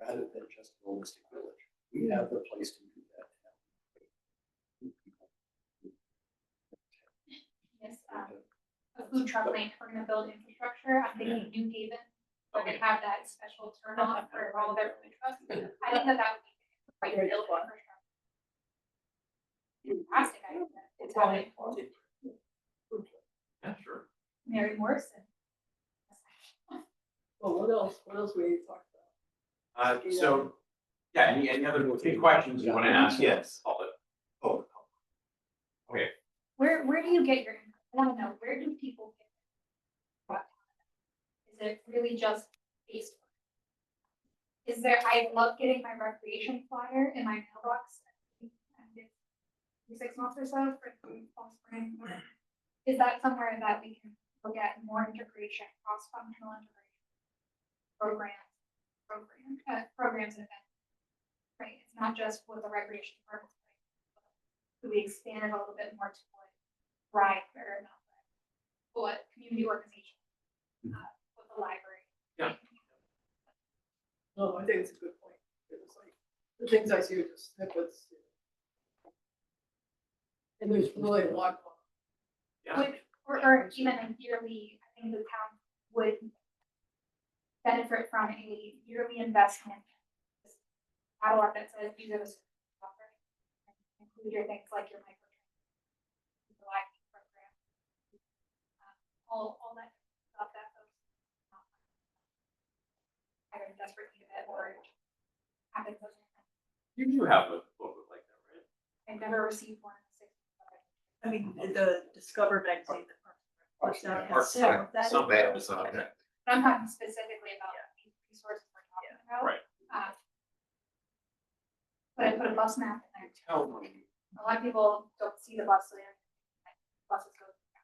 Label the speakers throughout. Speaker 1: rather than just holistic village. We have the place to do that.
Speaker 2: Yes, um, a food truck lane from the build infrastructure, I'm thinking New Haven, where they have that special turn off for all their food trucks. I think that that would be quite a build infrastructure. Fantastic idea, it's happening,
Speaker 3: Yeah, sure.
Speaker 2: Mary Morrison.
Speaker 4: Well, Oh, what else, what else we talked about?
Speaker 3: Uh, so, yeah, any, any other big questions you wanna ask?
Speaker 1: Yes.
Speaker 3: All the-
Speaker 1: Oh,
Speaker 2: Where, where do you get your, income? I wanna know, where do people get? their income? Is it really just based? on- Is there, I love getting my recreation flyer in my mailbox. and it's every Six months or so for the fall spring. whatever. Is that somewhere that we can look at more integration, cross-functional integration? Programs, program, uh, programs and events. Right, it's not just with the recreation department. right? Could we expand it a little bit more to what Thrive or not Thrive? What community organization? uh, What the library?
Speaker 3: Yeah.
Speaker 4: No, I think it's a good point. It was like, the things I see are just snippets. And there's really a lot.
Speaker 3: Yeah.
Speaker 2: Would, or, or even a yearly, I think the town would benefit from a yearly investment. Catalog that says these are the services we offer. Include your things like your micro. The library program. um, All, all that stuff that folks. um, Either desperately need it or have it.
Speaker 3: You do have a booklet like that, right?
Speaker 2: I've never received one. in six years.
Speaker 5: I mean, the Discover magazine that Parks and Rec
Speaker 3: Or-
Speaker 5: puts out has several, that
Speaker 3: Some of us, uh,
Speaker 2: But I'm talking specifically about these resources we're talking about.
Speaker 3: Right.
Speaker 2: Uh, But I put a bus map in there.
Speaker 3: Tell me.
Speaker 2: A lot of people don't see the bus lane. like, Buses go. They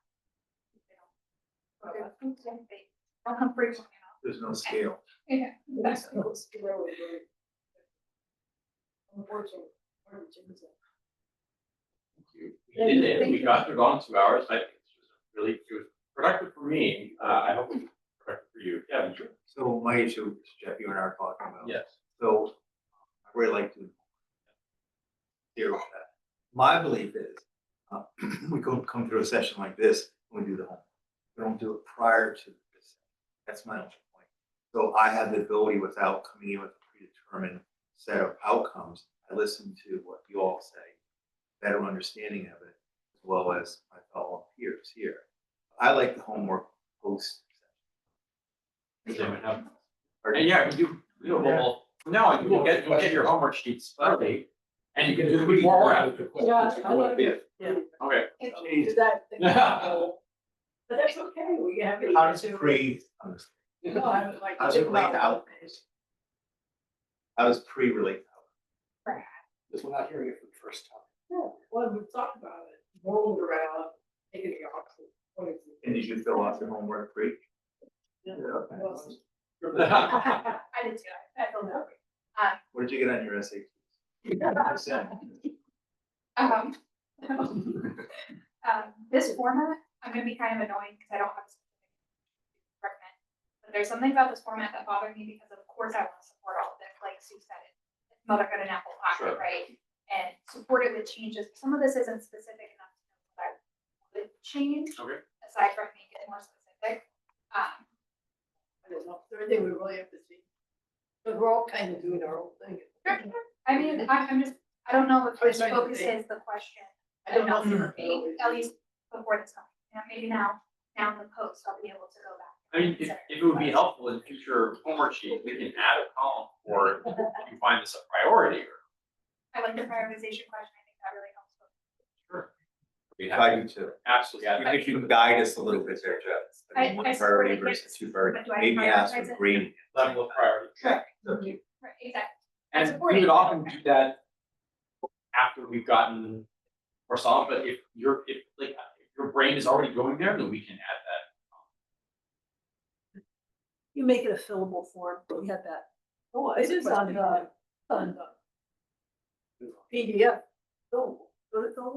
Speaker 2: don't- They don't come frequently enough.
Speaker 1: there's no
Speaker 2: scale. Yeah.
Speaker 4: That's what's really great. Unfortunately. part of Jim's life.
Speaker 3: We did it, we got through all in two hours, I think it was really, it was productive for me, uh, I hope it was productive for you, Kevin, sure.
Speaker 1: So my issue, Jeff, you and I are talking about.
Speaker 3: Yes.
Speaker 1: So I really like to hear about that. My belief is, uh, we go come through a session like this, and we do the homework. We don't do it prior to this. That's my only point. So I have the ability without coming in with a predetermined set of outcomes. I listen to what you all say, better understanding of it, as well as my fellow peers here. I like the homework post.
Speaker 3: Does anyone have-
Speaker 1: Or-
Speaker 3: And yeah, we do, we do a whole, no, you will get, you'll get your homework sheets early, and you can do the week more work.
Speaker 4: Yeah, I love it.
Speaker 3: Okay.
Speaker 1: Jeez.
Speaker 4: Did that thing go?
Speaker 5: but that's okay, we have. it
Speaker 1: How does
Speaker 5: to-
Speaker 1: pre,
Speaker 4: No, I would like. to
Speaker 1: How's it
Speaker 4: think about
Speaker 1: laid out?
Speaker 4: it.
Speaker 1: how does pre relate?
Speaker 6: Because we're not hearing it for the first time.
Speaker 4: Yeah, well, we've talked about it, rolled around, taking the opposite. points.
Speaker 1: And did you fill out your homework pre?
Speaker 4: Yeah.
Speaker 1: Okay.
Speaker 4: Well,
Speaker 2: I did too. I- I feel that way. Uh,
Speaker 1: What did you get on your SAT?
Speaker 2: Um, um, this format, I'm gonna be kind of annoying because I don't have a specific recommend. But there's something about this format that bothered me because of course I want to support all of this, like Sue said, it's motherhood and apple pie,
Speaker 3: Sure.
Speaker 2: right? And support it with changes. Some of this isn't specific enough to know what I would change.
Speaker 3: Okay.
Speaker 2: Aside from make it more specific. Um,
Speaker 4: I don't know, third thing we really have to see. But we're all kind of doing our own thing.
Speaker 2: I mean, I, I'm just, I don't know if
Speaker 4: I
Speaker 2: this
Speaker 4: was trying to
Speaker 2: focuses
Speaker 4: think.
Speaker 2: the question
Speaker 4: I don't know. if
Speaker 2: enough
Speaker 4: we're
Speaker 2: for me,
Speaker 4: always-
Speaker 2: at least before this coming. You know, maybe now, now in the post, I'll be able to go back.
Speaker 3: I mean, if, if it would be helpful in future homework sheet, we can add a column for, if you find this a priority or.
Speaker 2: I like the prioritization question, I think that really helps.
Speaker 3: Sure. We have,
Speaker 1: I do too.
Speaker 3: absolutely,
Speaker 1: You think you can guide us a little bit there, Jeff?
Speaker 2: I- I
Speaker 1: I mean, One priority
Speaker 2: support it,
Speaker 1: versus two priority,
Speaker 2: but do I
Speaker 1: maybe ask
Speaker 2: prioritize
Speaker 1: for
Speaker 2: it?
Speaker 1: green.
Speaker 3: level of priority.
Speaker 1: Okay.
Speaker 2: Right, exactly.
Speaker 3: And we would often do that after we've gotten or solved, but if your, if like, if your brain is already going there, then we can add that.
Speaker 5: You make it a fillable form, but we had that.
Speaker 4: Oh, it is on the, on the PDF. Oh,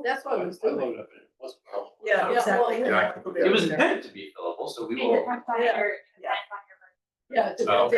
Speaker 4: that's what I was
Speaker 6: I load
Speaker 4: doing.
Speaker 6: up and it wasn't helpful.
Speaker 4: Yeah, yeah, well,
Speaker 5: Exactly.
Speaker 4: yeah.
Speaker 3: It was intended to be fillable, so we
Speaker 2: Make it
Speaker 3: will.
Speaker 2: one side or-
Speaker 5: Yeah.
Speaker 2: and one on your version.
Speaker 4: Yeah, it's-
Speaker 3: Okay.